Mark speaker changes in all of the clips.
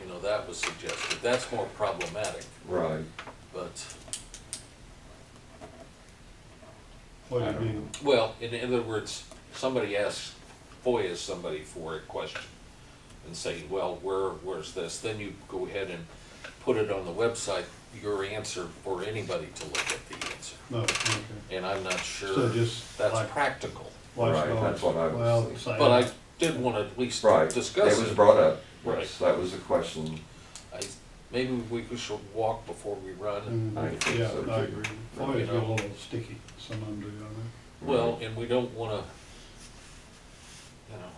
Speaker 1: you know, that was suggested. That's more problematic,
Speaker 2: Right.
Speaker 1: but,
Speaker 3: What
Speaker 2: I
Speaker 3: do
Speaker 2: don't
Speaker 3: you mean?
Speaker 1: well, in other words, somebody asks, FOIA somebody for a question and say, well, where, where's this? Then you go ahead and put it on the website, your answer for anybody to look at the answer.
Speaker 3: No, okay.
Speaker 1: And I'm not sure
Speaker 3: So just like
Speaker 1: that's practical,
Speaker 2: Right,
Speaker 3: watchdogs.
Speaker 2: that's what I was
Speaker 3: Well,
Speaker 2: thinking.
Speaker 3: same.
Speaker 1: but I did want to at least
Speaker 2: Right.
Speaker 1: discuss
Speaker 2: It was
Speaker 1: it.
Speaker 2: brought up.
Speaker 1: Right.
Speaker 2: Yes, That was the question.
Speaker 1: I, maybe we should walk before we run.
Speaker 3: Mm,
Speaker 2: I think so,
Speaker 3: Yeah, I
Speaker 2: too.
Speaker 3: agree.
Speaker 1: You
Speaker 3: Always get a
Speaker 1: know.
Speaker 3: little sticky, some of them do, you know?
Speaker 1: Well, and we don't wanna, you know,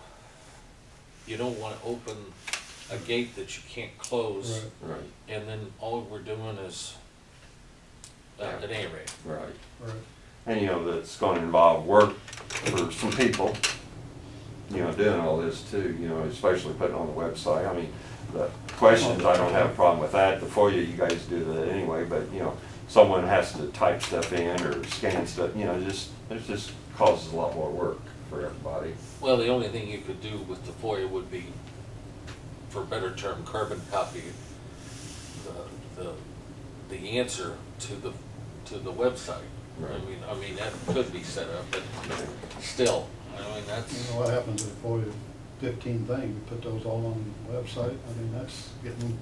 Speaker 1: you don't wanna open a gate that you can't close,
Speaker 3: Right,
Speaker 2: Right,
Speaker 1: and then all we're doing is, uh, at any rate,
Speaker 2: right.
Speaker 3: right.
Speaker 2: And you know, that's gonna involve work for some people, you know, doing all this too, you know, especially putting on the website. I mean, the questions, I don't have a problem with that. The FOIA, you guys do that anyway, but you know, someone has to type stuff in or scan stuff, you know, just, it just causes a lot more work for everybody.
Speaker 1: well, the only thing you could do with the FOIA would be, for better term, carbon copy the, the, the answer to the, to the website. I
Speaker 2: Right.
Speaker 1: mean, I mean, that could be set up, but still, I mean,
Speaker 3: You
Speaker 1: that's,
Speaker 3: know what happens if for you fifteen things, you put those all on the website, I mean, that's getting,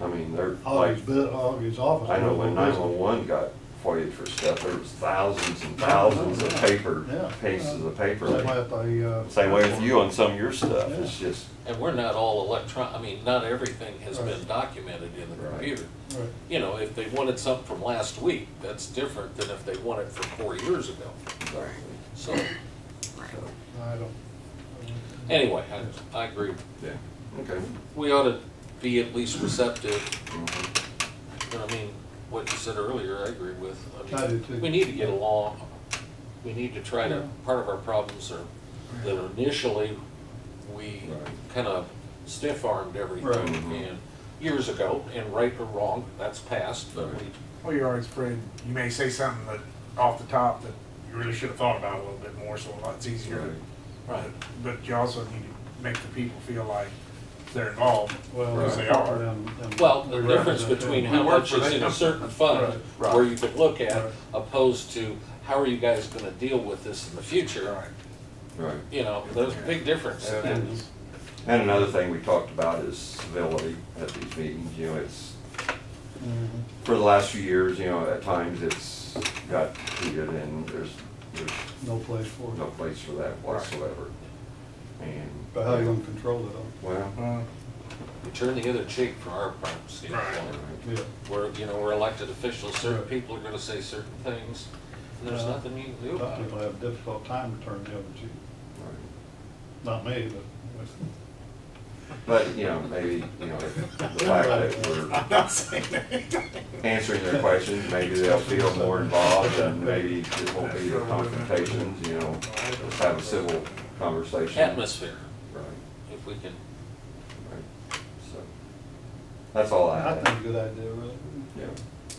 Speaker 2: I mean, they're like,
Speaker 3: Augie's, bu- Augie's office.
Speaker 2: I know when
Speaker 3: is busy.
Speaker 2: 911 got FOIA for stuff, there was thousands and thousands of paper,
Speaker 3: Yeah.
Speaker 2: pieces of paper.
Speaker 3: Same way at the, uh.
Speaker 2: Same way with you on some of your stuff, it's just,
Speaker 1: And we're not all electron, I mean, not everything has been
Speaker 3: Right.
Speaker 1: documented in the
Speaker 2: Right.
Speaker 1: computer.
Speaker 3: Right,
Speaker 1: You know, if they wanted something from last week, that's different than if they want it from four years ago.
Speaker 2: exactly.
Speaker 1: So,
Speaker 3: I don't.
Speaker 1: anyway, I, I agree.
Speaker 2: Yeah. Okay.
Speaker 1: We ought to be at least receptive,
Speaker 2: Mhm.
Speaker 1: but I mean, what you said earlier, I agree with. mean,
Speaker 3: I do too.
Speaker 1: We need to get along, we need to try to,
Speaker 3: Yeah.
Speaker 1: part of our problems are that initially, we
Speaker 2: Right.
Speaker 1: kind of stiff-armed
Speaker 3: Right.
Speaker 1: everything.
Speaker 2: Mhm.
Speaker 1: And years ago, and right or wrong, that's past, but we
Speaker 2: Right.
Speaker 4: Well, you're always afraid, you may say something that, off the top, that you really should have thought about a little bit more, so it's easier.
Speaker 1: Right.
Speaker 4: But you also need to make the people feel like they're involved,
Speaker 3: Well,
Speaker 4: because they are.
Speaker 1: Well, the difference between how
Speaker 4: We work
Speaker 1: much
Speaker 4: for
Speaker 1: is in a
Speaker 4: them.
Speaker 1: certain fund,
Speaker 4: Right.
Speaker 1: where you could look at,
Speaker 4: Right.
Speaker 1: opposed to how are you guys gonna deal with this in the future?
Speaker 4: Right.
Speaker 2: Right.
Speaker 1: You know, there's a big difference.
Speaker 4: Yeah.
Speaker 1: And
Speaker 2: And another thing we talked about is civility at these meetings, you know, it's,
Speaker 3: Mm-hmm.
Speaker 2: for the last few years, you know, at times it's got heated and there's, there's
Speaker 3: No place for
Speaker 2: no
Speaker 3: it.
Speaker 2: place for that whatsoever. And.
Speaker 3: But how you gonna control it all?
Speaker 2: Well,
Speaker 4: Uh,
Speaker 1: We turn the other cheek for our problems, standpoint.
Speaker 4: Right.
Speaker 3: Yeah,
Speaker 1: We're, you know, we're elected officials, certain
Speaker 3: Right.
Speaker 1: people are gonna say certain things, and there's
Speaker 3: Yeah.
Speaker 4: Uh,
Speaker 1: nothing you can do
Speaker 3: Some
Speaker 1: about it.
Speaker 3: people have a difficult time returning the other cheek.
Speaker 2: right.
Speaker 3: Not me,
Speaker 2: But, you know, maybe, you know, if the fact that we're
Speaker 4: I'm not saying that.
Speaker 2: answering their questions, maybe they'll feel more involved and maybe it won't be the confrontations, you know. Let's have a civil conversation.
Speaker 1: Atmosphere,
Speaker 2: Right,
Speaker 1: if we can
Speaker 2: right. So, that's all I
Speaker 3: but I
Speaker 2: have.
Speaker 3: think a good idea, really.
Speaker 2: Yeah.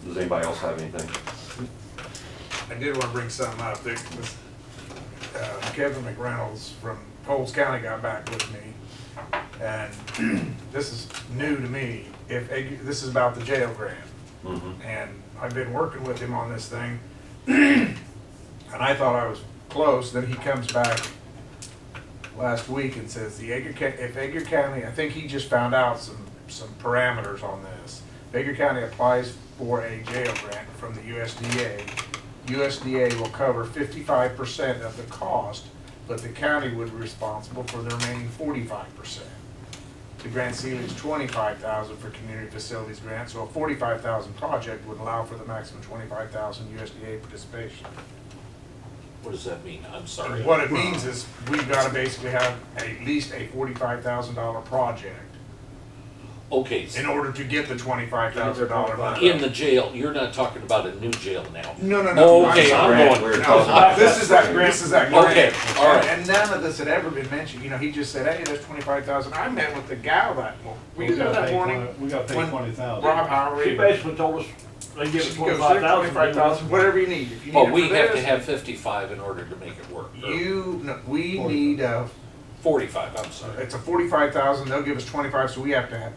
Speaker 2: Does anybody else have anything?
Speaker 4: I did want to bring something up. There was, uh, Kevin McReynolds from Coles County got back with me. And this is new to me. If, this is about the jail grant.
Speaker 2: Mm-hmm.
Speaker 4: and I've been working with him on this thing. and I thought I was close. Then he comes back last week and says the Edgar, Ca- if Edgar County, I think he just found out some some parameters on this. If Edgar County applies for a jail grant from the USDA. USDA will cover 55% of the cost, but the county would be responsible for the remaining 45%. The grant ceiling is twenty-five thousand for community facilities grant, so a forty-five thousand project would allow for the maximum twenty-five thousand USDA participation.
Speaker 1: What does that mean? I'm sorry.
Speaker 4: What it means is, we've gotta basically have at least a forty-five thousand dollar project
Speaker 1: Okay, so
Speaker 4: in order to get the twenty-five thousand dollar money.
Speaker 1: in the jail, you're not talking about a new jail now.
Speaker 4: No, no, no.
Speaker 1: Oh, Okay,
Speaker 4: sorry.
Speaker 1: I'm going-
Speaker 2: We're talking
Speaker 4: No,
Speaker 2: about
Speaker 4: this is that, grant, this is that grant.
Speaker 1: Okay, all right.
Speaker 4: And none of this had ever been mentioned, you know, he just said, hey, there's twenty-five thousand, I met with the gal that, mo- were you there
Speaker 3: gotta
Speaker 4: that
Speaker 3: pay
Speaker 4: morning?
Speaker 3: 20 We gotta pay
Speaker 4: When-
Speaker 3: twenty thousand.
Speaker 4: Rob Howery.
Speaker 5: She basically told us they give us
Speaker 4: She goes,
Speaker 5: twenty-five thousand.
Speaker 4: $25,000, whatever you need. If you
Speaker 1: But
Speaker 4: need
Speaker 1: we
Speaker 4: it for
Speaker 1: have to
Speaker 4: this,
Speaker 1: have fifty-five in order to make it work. or
Speaker 4: You, no, we
Speaker 3: Forty.
Speaker 4: need uh, a,
Speaker 1: Forty-five, I'm sorry.
Speaker 4: it's a forty-five thousand, they'll give us twenty-five, so we have to have,